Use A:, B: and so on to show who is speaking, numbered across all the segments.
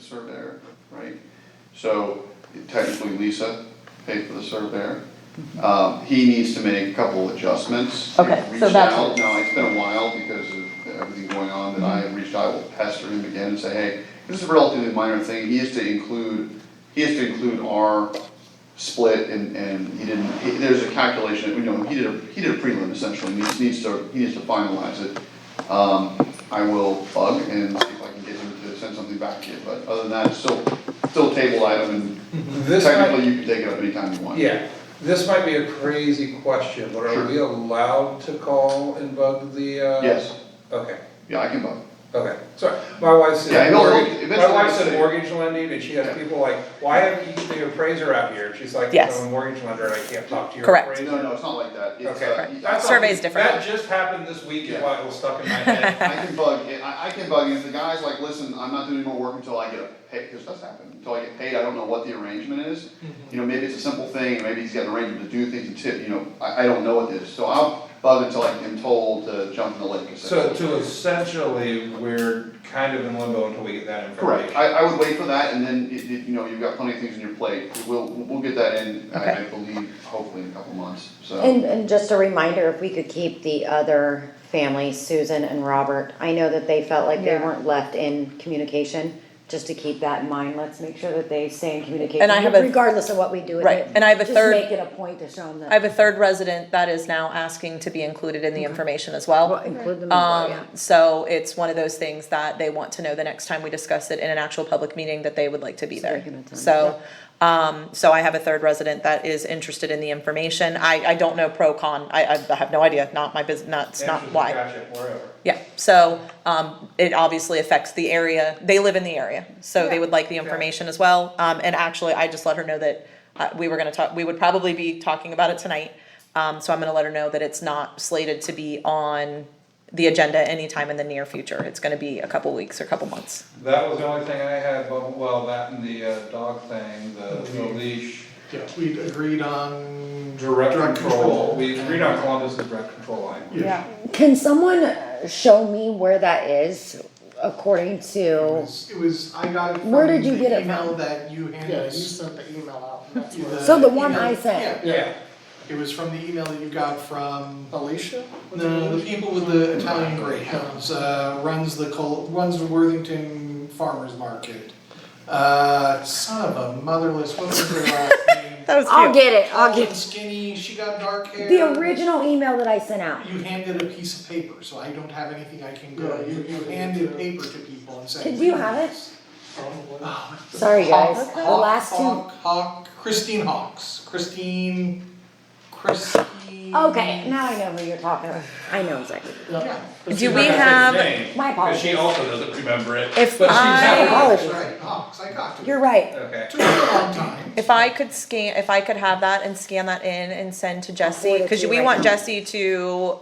A: surveyor, right? So technically Lisa paid for the surveyor. Um, he needs to make a couple adjustments.
B: Mm-hmm. Okay,
A: We've
B: so that's-
A: reached out. Now, it's been a while because of everything going on that I have reached out, I will pester him again and say, hey, this is a relatively minor thing, he has to include, he has to include our split and, and he didn't, he- there's a calculation, that we know, he did a, he did a prelim essentially, and he just needs to, he needs to finalize it. Um, I will bug and see if I can get him to send something back to you, but other than that, it's still, still a table item and
C: This
A: technically
C: might,
A: you can take it up anytime you want.
C: yeah, this might be a crazy question, but
A: Sure.
C: are we allowed to call and bug the, uh?
A: Yes,
C: Okay,
A: yeah, I can bug.
C: okay, sorry, my wife's
A: Yeah,
C: in
A: he'll-
C: mortgage, my
A: eventually
C: wife's
A: he'll
C: in
A: say-
C: mortgage lending, and she
A: Yeah.
C: has people like, why have you, the appraiser out here? And She's like,
B: Yes.
C: I'm a mortgage lender and I can't talk to your
B: Correct.
C: appraiser.
A: No, no, it's not like that, it's,
C: Okay.
A: uh,
C: That's
A: I-
C: all-
B: Survey's different.
C: That just happened this week, is
A: Yeah.
C: why it was stuck in my head.
A: I can bug, I, I can bug, and if the guy's like, listen, I'm not doing any more work until I get a pay, cause that's happened, until I get paid, I don't know what the arrangement is.
C: Mm-hmm.
A: You know, maybe it's a simple thing, maybe he's got an arrangement to do things and tip, you know, I, I don't know what it is, so I'll bug until I am told to jump in the lake.
C: So
A: essentially.
C: to essentially, we're kind of in limbo until we get that information.
A: Correct, I, I would wait for that, and then, it, it- you know, you've got plenty of things on your plate, we'll, we'll get that in, I, I
B: Okay.
A: believe, hopefully in a couple months, so.
D: And, and just a reminder, if we could keep the other families, Susan and Robert, I know that they felt like they
E: Yeah.
D: weren't left in communication, just to keep that in mind, let's make sure that they stay in communication.
B: And I have a-
D: Regardless of what we do with it.
B: Right, and I have a third-
D: Just make it a point to show them that.
B: I have a third resident that is now asking to be included in the information as well.
D: Well, Include them as well, yeah.
B: Um, so it's one of those things that they want to know the next time we discuss it in an actual public meeting that they would like to be
D: So they
B: there.
D: can attend,
B: So, um, so I have a third resident that is interested in the information. I, I don't know pro con. I, I have no idea. Not my business, not, it's not
C: Answers are
B: why.
C: gotcha, wherever.
B: Yeah, so, um, it obviously affects the area. They live in the area, so they
E: Yeah.
B: would like the information as well. Um, and actually, I just let her know that, uh, we were gonna talk, we would probably be talking about it tonight. Um, so I'm gonna let her know that it's not slated to be on the agenda anytime in the near future. It's gonna be a couple weeks or couple months.
C: That was the only thing I had, but, well, that and the uh, dog thing, the the leash.
F: Yeah, we agreed on.
C: Direct control, we agreed on Columbus's direct control line.
E: Yeah,
D: Can someone show me where that is according
F: It
D: to,
F: was, it was, I got it from
D: Where did you get
F: the
D: it
F: email
D: from?
F: that you
G: Yeah, you
F: handed.
G: sent the email out, and that's where,
D: So the one I
F: email-
D: sent.
F: Yeah, yeah,
C: Yeah,
F: it was from the email that you got from,
G: Alicia? What's her
F: no,
G: name?
F: the people with the Italian greyhounds, uh, runs the Col, runs the Worthington Farmers Market. Uh, son of a motherless, what was her last name?
B: That was
D: I'll
B: cute.
D: get it, I'll
F: Tall and
D: get,
F: Skinny, she got dark hair.
D: the original email that I sent out.
F: You handed a piece of paper, so I don't have anything I can go,
G: Yeah,
F: you,
G: you-
F: you handed paper to people and said.
D: Did you have it?
G: Probably.
D: Sorry, guys,
F: Hawk,
D: the
F: Hawk,
D: last two.
F: Hawk, Hawk, Christine Hawks, Christine, Christine.
D: Okay, now I know who you're talking about. I know exactly.
G: Yeah.
B: Do we
C: Not gonna say
B: have-
C: his name,
D: My
C: 'cause she
D: apologies.
C: also doesn't remember it.
B: If
C: But she's
B: I-
C: happy.
F: Oh, That's
D: Apologies.
F: right, Hawks, I got to it.
D: You're right.
C: Okay.
F: Took me a long time.
B: If I could scan, if I could have that and scan that in and send to
D: forward
B: Jesse,
D: it
B: cause
D: to you
B: we
D: right
B: want
D: now.
B: Jesse to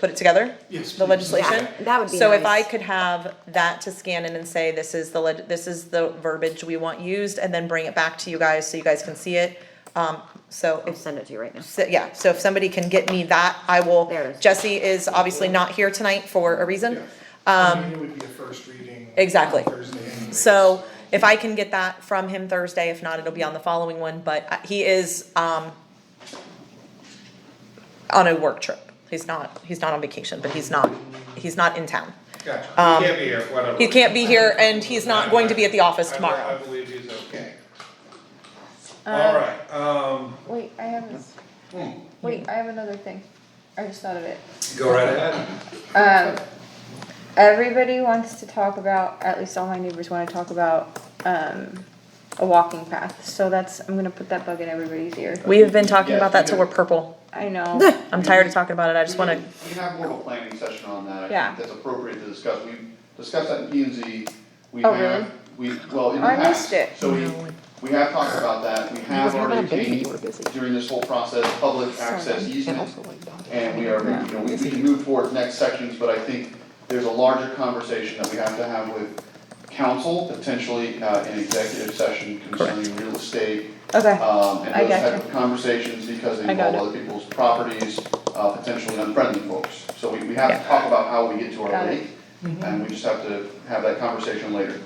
B: put it together?
F: Yes,
B: The
F: please.
B: legislation?
D: Yeah, that would be
B: So if I
D: nice.
B: could have that to scan in and say, this is the leg, this is the verbiage we want used, and then bring it back to you guys so you guys can see it. Um, so
D: I'll
B: if,
D: send it to you right now.
B: so- yeah, so if somebody can get me that, I will,
D: There it is.
B: Jesse is obviously not here tonight for a reason.
F: I mean, it would be a first reading. on
B: um, exactly.
F: Thursday anyway,
B: So if I can get that from him Thursday, if not, it'll be on the following one, but uh, he is, um, on a work trip. He's not, he's not on vacation, but he's not, he's not in town.
C: Gotcha,
B: Um,
C: he can't be here, whatever.
B: He can't be here and he's not going to be at the office
C: I- I
B: tomorrow. Uh,
C: believe he's okay.
E: Um,
C: Alright, um,
E: Wait, I have, this-
C: hmm,
E: wait, I have another thing. I just thought of it.
C: go right ahead.
E: Um, everybody wants to talk about, at least all my neighbors wanna talk about, um, a walking path, so that's, I'm gonna put that bug in everybody's ear.
B: We have been talking about
A: Yes,
B: that till we're purple.
E: I know,
B: I'm tired of talking about it. I just
A: We
B: wanna,
A: can- We can have more of a planning session on that, I
E: Yeah.
A: think that's appropriate to discuss, we discussed that in P and Z, we
E: Oh,
A: have, we, well, in the
E: I
A: past.
E: missed it.
A: So we, we have talked about that, we have already gained during this whole process, public access easement. And we are, you know, we we can move forward to next sections, but I think there's a larger conversation that we have to have with council, potentially, uh, in executive session concerning real estate,
E: okay,
A: um,
E: I
A: and those
E: gotcha.
A: type of conversations because they
E: I got
A: involve other people's properties, uh, potentially unfriendly folks. So we, we have to talk about how we get to our
E: Got it.
A: lake, and we just have to have that conversation later.